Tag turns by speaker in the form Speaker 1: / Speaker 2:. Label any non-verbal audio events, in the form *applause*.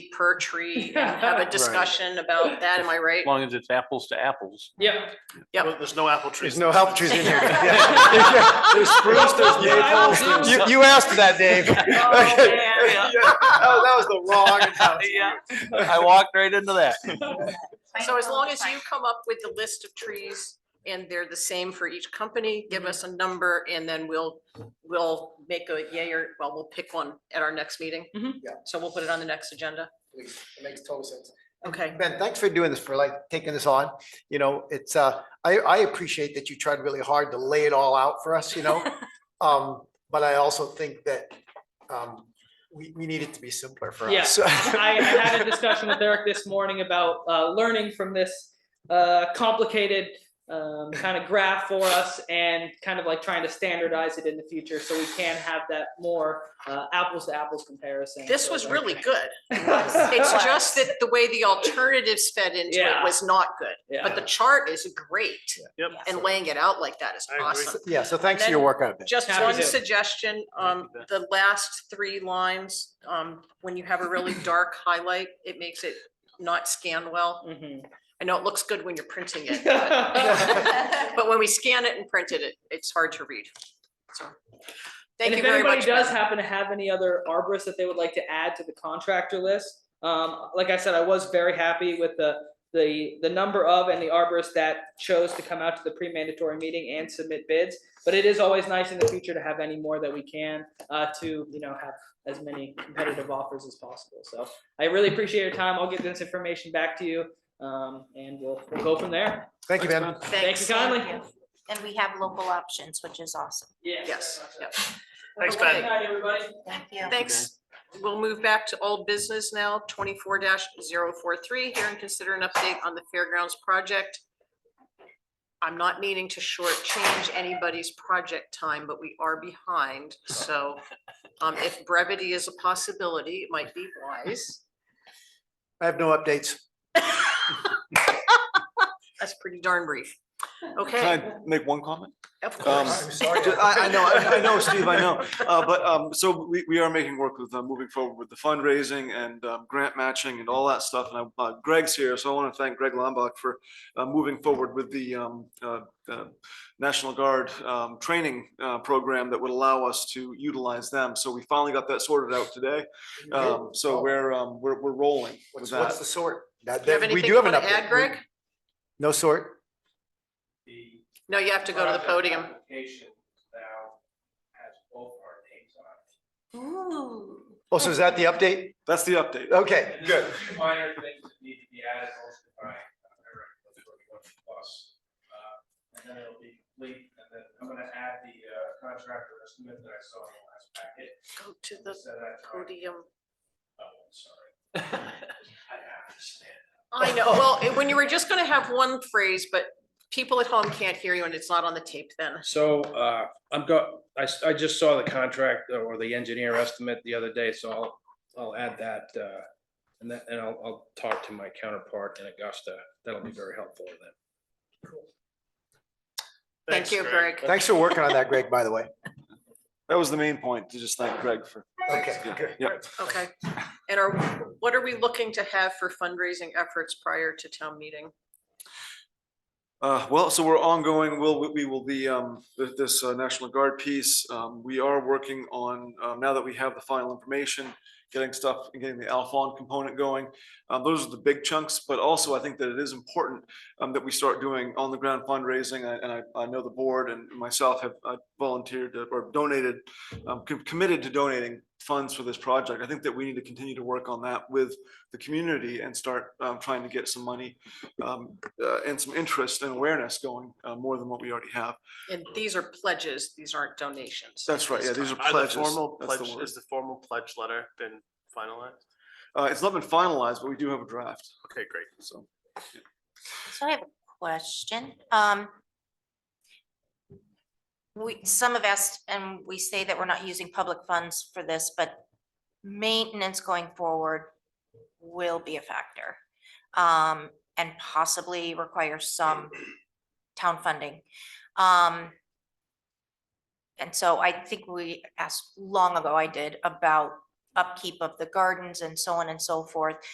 Speaker 1: for a tree and have a
Speaker 2: *laughs* Right.
Speaker 1: discussion about that, am I right?
Speaker 3: As long as it's apples to apples.
Speaker 2: *laughs* Yeah.
Speaker 1: Yep. *laughs*
Speaker 4: There's no apple trees.
Speaker 5: There's no apple
Speaker 2: *laughs*
Speaker 5: trees in here. Yeah. There's spruce, there's maple. You, you asked for that, Dave.
Speaker 2: Oh,
Speaker 5: Okay.
Speaker 1: man.
Speaker 5: Oh, That was the
Speaker 2: *laughs*
Speaker 5: wrong analogy.
Speaker 3: Yeah, I walked right into that.
Speaker 1: So as long as you come up with the list of trees and they're the same for each company,
Speaker 2: Mm-hmm.
Speaker 1: give us a number and then we'll, we'll make a yay or, well, we'll pick one at our next meeting.
Speaker 2: Mhm.
Speaker 5: Yeah.
Speaker 1: So we'll put it on the next agenda.
Speaker 5: It makes total sense.
Speaker 1: Okay.
Speaker 5: Ben, thanks for doing this, for like taking this on. You know, it's, uh, I, I appreciate that you tried really hard to lay it all out for us,
Speaker 2: *laughs*
Speaker 5: you know? Um, but I also think that, um, we, we need it to be simpler for
Speaker 2: Yeah.
Speaker 5: us. *laughs*
Speaker 2: I, I had a discussion with Eric this morning about uh, learning from this uh, complicated um, kind of graph for us and kind of like trying to standardize it in the future so we can have that more uh, apples to apples comparison.
Speaker 1: This
Speaker 2: So
Speaker 1: was
Speaker 2: like-
Speaker 1: really
Speaker 2: *laughs*
Speaker 1: good. It's
Speaker 2: It's
Speaker 1: just that the way the alternatives fed into it
Speaker 2: Yeah.
Speaker 1: was not good, but
Speaker 2: Yeah,
Speaker 1: the chart is great
Speaker 4: Yep.
Speaker 1: and laying it out like that is
Speaker 4: I agree.
Speaker 1: awesome.
Speaker 5: Yeah, so thanks for your work on it.
Speaker 1: Just
Speaker 2: Happy
Speaker 1: one
Speaker 2: to.
Speaker 1: suggestion, um,
Speaker 4: Thank
Speaker 1: the last three lines, um, when you have a
Speaker 2: *laughs*
Speaker 1: really dark highlight, it makes it not scan well.
Speaker 2: *laughs* Mhm.
Speaker 1: I know it looks good when you're printing it,
Speaker 2: *laughs*
Speaker 1: but, but when we scan it and print it, it, it's hard to read. So,
Speaker 2: And
Speaker 1: Thank you
Speaker 2: if
Speaker 1: very
Speaker 2: anybody
Speaker 1: much.
Speaker 2: does
Speaker 1: Ben.
Speaker 2: happen to have any other arborists that they would like to add to the contractor list, um, like I said, I was very happy with the, the, the number of and the arborists that chose to come out to the pre-mandatory meeting and submit bids. But it is always nice in the future to have any more that we can, uh, to, you know, have as many competitive offers as possible. So I really appreciate your time. I'll get this information back to you, um, and we'll, we'll go from there.
Speaker 5: Thank you, Ben.
Speaker 2: Thank you kindly.
Speaker 6: Thank you. And we have local options, which is awesome.
Speaker 1: Yes, yep.
Speaker 4: Thanks,
Speaker 1: Ben.
Speaker 2: Good night, everybody.
Speaker 6: Thank you.
Speaker 1: Thanks. We'll move back to old business now, twenty-four 43 here and consider an update on the fairgrounds project. I'm not meaning to shortchange anybody's project time, but we are behind, so um, if brevity is a possibility, it might be wise.
Speaker 5: I have no updates.
Speaker 1: That's pretty darn brief. Okay,
Speaker 3: *laughs* Can I make one comment?
Speaker 1: of
Speaker 5: uh,
Speaker 3: Um,
Speaker 1: course.
Speaker 3: ju- I, I know, I
Speaker 5: *laughs*
Speaker 3: I know, Steve, I *laughs* know. Uh, but, um, so we, we are making work with, uh, moving forward with the fundraising and, um, grant matching and all that stuff. And, I- uh, Greg's here, so I want to thank Greg Lombach for, uh, moving forward with the, um, uh, uh, National Guard, um, training, uh, program that would allow us to utilize them. So we finally got that sorted out today. Um, so we're, um, we're, we're rolling
Speaker 5: Oh. What's,
Speaker 3: with
Speaker 5: what's
Speaker 3: that.
Speaker 5: the sort? That-
Speaker 1: Do you have
Speaker 5: that- we
Speaker 1: anything
Speaker 5: do
Speaker 1: you
Speaker 5: have an
Speaker 1: want to add,
Speaker 5: update.
Speaker 1: Greg?
Speaker 5: No sort.
Speaker 7: The
Speaker 1: No, you have to go to the
Speaker 7: project
Speaker 1: podium.
Speaker 7: Application now has both our names on it.
Speaker 6: Ooh.
Speaker 5: Oh, so is that the update?
Speaker 3: That's the update.
Speaker 5: Okay,
Speaker 7: And
Speaker 5: good.
Speaker 7: there's a few Minor things that need to be added also by uh, Eric, that's what we want to plus. Uh, And then it'll be complete, and then I'm gonna add the uh, contractor estimate that I saw in the last packet.
Speaker 1: Go to the
Speaker 7: Set that time.
Speaker 1: podium.
Speaker 7: Oh, I'm sorry. I understand.
Speaker 1: I know, well, it- when you were just gonna have one phrase, but people at home can't hear you and it's not on the tape then.
Speaker 7: So uh, I'm go, I, s- I just saw the contract uh, or the engineer estimate the other day, so I'll, I'll add that. uh, And that, and I'll, I'll talk to my counterpart in Augusta. That'll be very helpful then.
Speaker 1: Thank you, Greg.
Speaker 5: Thanks for working on that, Greg, by the way.
Speaker 3: That was the main point, to just thank Greg for.
Speaker 5: Okay, good.
Speaker 3: Yeah.
Speaker 1: Okay. And are, what are we looking to have for fundraising efforts prior to town meeting?
Speaker 3: Uh, well, so we're ongoing, we'll, we- we will be, um, th- this, uh, National Guard piece, um, we are working on, um, now that we have the final information, getting stuff, and getting the Alphon component going, um, those are the big chunks, but also I think that it is important, um, that we start doing on-the-ground fundraising, I- and I, I know the board and myself have uh, volunteered to- or donated, um, com- committed to donating funds for this project, I think that we need to continue to work on that with the community and start, um, trying to get some money, um, uh, and some interest and awareness going uh, more than what we already have.
Speaker 1: And these are pledges, these aren't donations.
Speaker 3: That's right. Yeah, these are
Speaker 4: Are the
Speaker 3: pledges.
Speaker 4: formal
Speaker 3: That's the
Speaker 4: pledge,
Speaker 3: word.
Speaker 4: is the formal pledge letter been finalized?
Speaker 3: Uh, it's not been finalized, but we do have a draft.
Speaker 4: Okay, great.
Speaker 3: So
Speaker 6: So I have a question. Um. We, some have asked, and we say that we're not using public funds for this, but maintenance going forward will be a factor. Um, and possibly require some town funding. Um. And so I think we asked long ago, I did, about upkeep of the gardens and so on and so forth.